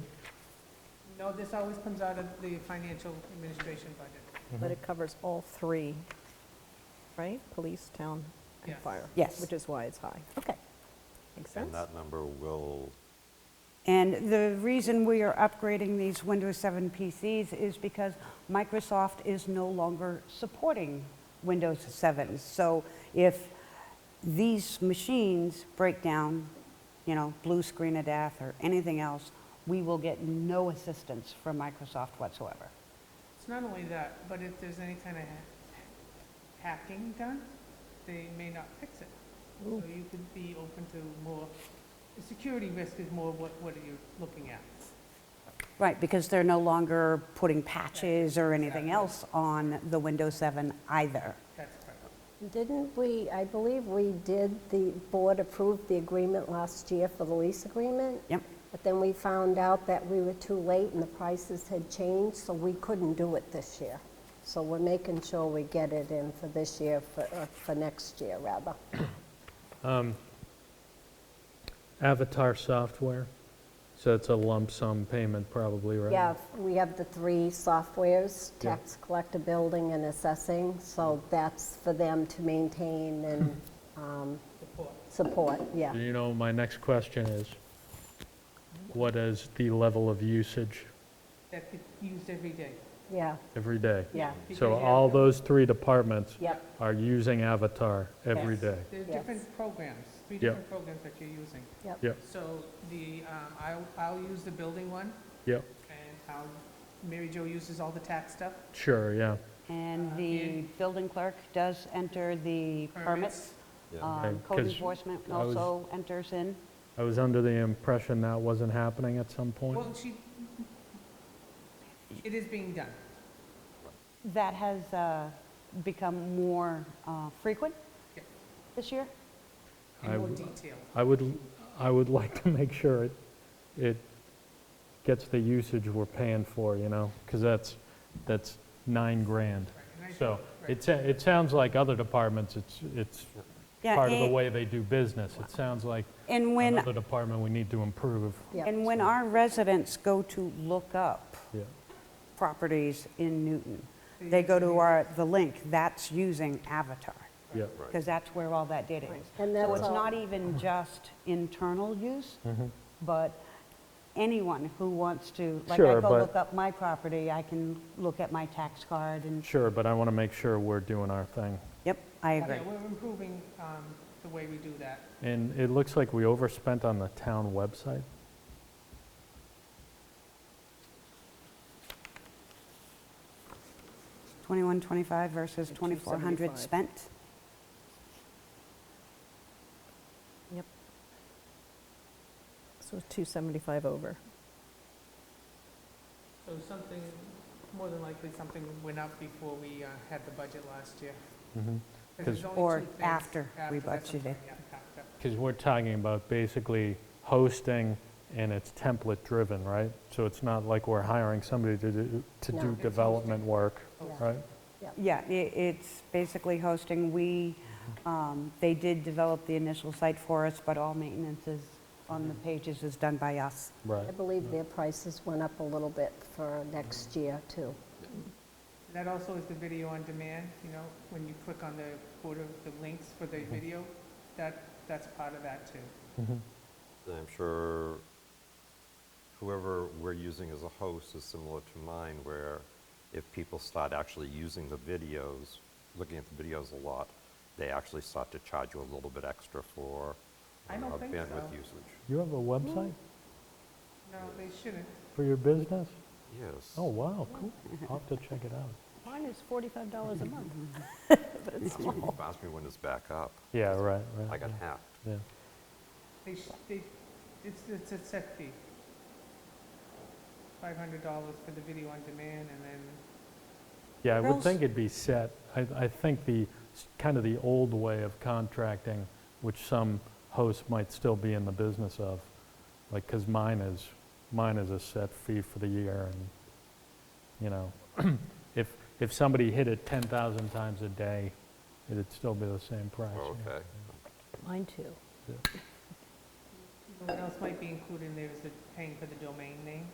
No, this always comes out of the financial administration budget. But it covers all three, right? Police, town, and Yes. fire. Yes. Which is why it's high. Okay. Makes sense? And that number will, And the reason we are upgrading these Windows 7 PCs is because Microsoft is no longer supporting Windows 7. So if these machines break down, you know, blue screen of death or anything else, we will get no assistance from Microsoft whatsoever. It's not only that, but if there's any kind of ha- hacking done, they may not fix it. So you could be open to more, the security risk is more what, what are you looking at? Right, because they're no longer putting patches or anything else on the Windows 7 either. That's correct. Didn't we, I believe we did, the board approved the agreement last year for the lease agreement? Yep. But then we found out that we were too late and the prices had changed, so we couldn't do it this year. So we're making sure we get it in for this year, for, uh, for next year, rather. Avatar software, so it's a lump sum payment probably, right? Yeah, we have the three softwares, tax collector, building, and assessing, so that's for them to maintain and um, support, yeah. Do You know, my next question is, what is the level of usage That could used every day. Yeah, every day? yeah, So Because you all have to- those three departments yep. are using Avatar every Yes. day? There are Yes. different programs, three Yeah. different programs that you're using. Yep, So the, um, I'll, I'll use the building one, yep, and how Mary Jo uses all the tax stuff. sure, yeah. And the building clerk does enter the permits. Uh, yeah. Um, Okay, Code 'cause enforcement I was- also enters in. I was under the impression that wasn't happening at some point. Well, she, it is being done. That has uh, become more uh, frequent Yeah. this year. I in more w- detail. I would, I would like to make sure it, it gets the usage we're paying for, you know, because that's, that's nine grand. and I So think- it, sa- it sounds like other departments, it's, it's Yeah, part of the and- way they do business. It sounds like And when, another department we need to improve. Yeah. and when our residents go to look up Yeah, properties in Newton, Mm-hmm. they go to our, the link, that's using Avatar, yeah. because that's where all that data is. And So that's it's all- not Mm-hmm. even just internal use, but anyone who wants to, like I Sure, go but- look up my property, I can look at my tax card and, Sure, but I want to make sure we're doing our thing. yep, I Yeah, agree. we're improving um, the way we do that. And it looks like we overspent on the town website. Twenty-one, twenty-five versus 2,400 spent. Yep. So it's 275 over. So something, more than likely, something went up before we uh, had the budget last year. 'Cause there's 'Cause- only Or two things after we that's budgeted. okay, yeah, after. Because we're talking about basically hosting and it's template-driven, right? So it's not like we're hiring somebody to do, to No. do It's development work, Yeah. right? Yeah, i it's basically hosting, we, Mm-hmm. um, they did develop the initial site for us, but all maintenance is, on Mm-hmm. the pages is done by us. Right. I believe their prices went up a little bit for next year, too. That also is the video on demand, you know, when you click on the order, the links for the video, that, that's part of that too. I'm sure whoever we're using as a host is similar to mine, where if people start actually using the videos, looking at the videos a lot, they actually start to charge you a little bit extra for I don't uh, think bandwidth so. usage. You have a website No, they shouldn't. for your business? Yes. Oh, wow, cool. I'll have to check it out. Mine is $45 a month. Ask me- Ask me when it's back up. Yeah, right, I right. got yeah, hacked. Yeah. They, sh- they, it's, it's a set fee. Five hundred dollars for the video on demand and then, Yeah, I would Girls- think it'd be set. I, I think the, s- kind of the old way of contracting, which some hosts might still be in the business of, like, because mine is, mine is a set fee for the year, and, you know, if, if somebody hit it 10,000 times a day, it'd still be the same price. Oh, yeah. Okay. Mine too. Mm-hmm. what else might be included in there is the paying for the domain name.